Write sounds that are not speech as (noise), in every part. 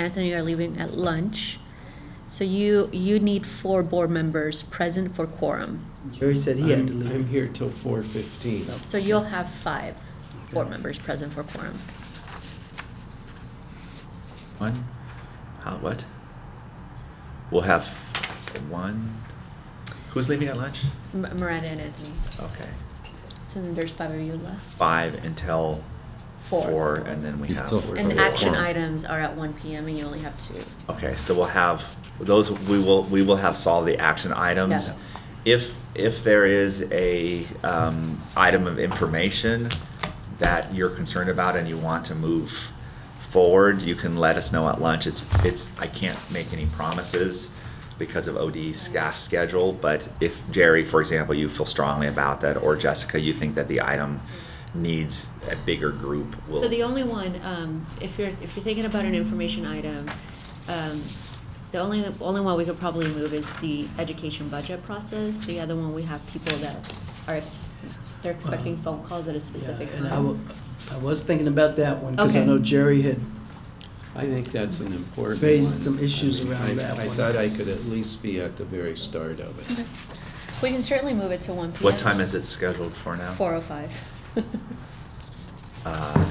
Anthony are leaving at lunch. So you, you need four board members present for quorum. Jerry said he had to I'm- I'm leave. here till four fifteen. So you'll have five board members present for quorum. One, how, what? We'll have one, who's leaving at lunch? M- Miranda and Anthony. Okay, So then there's five of you left. five until Four. four, and then we You have. still- And Four. action items are at one PM and you only have two. Okay, so we'll have, those, we will, we will have solved the action items. Yeah. If, if there is a, um, item of information that you're concerned about and you want to move forward, you can let us know at lunch. It's, it's, I can't make any promises because of OD staff schedule, but if Jerry, for example, you feel strongly about that, or Jessica, you think that the item needs a bigger group, we'll. So the only one, um, if you're, if you're thinking about an information item, um, the only, only one we could probably move is the education budget process. The other one, we have people that are, ex- they're expecting phone calls at a specific Uh-huh. Yeah, time. And I wa- I was thinking about that one, because I Okay. know Jerry had, I think that's an important one. Raised some issues I mean, around I- that I one. thought I could at least be at the very start of it. We can certainly move it to one PM. What time is it scheduled for now? Four oh five. (laughs) Uh,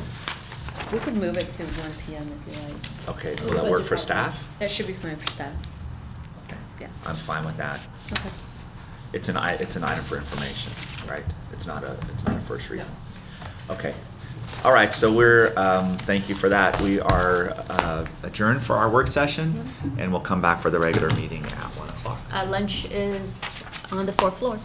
We could move it to one PM if you like. Okay, will that work for staff? That should be fine for staff. Okay, Yeah. I'm fine with that. Okay. It's an, i- it's an item for information, right? It's not a, it's not a first reading. Okay. All right, so we're, um, thank you for that. We are uh, adjourned for our work session, and we'll come back for the regular meeting at 1 o'clock. Uh, lunch is on the fourth floor.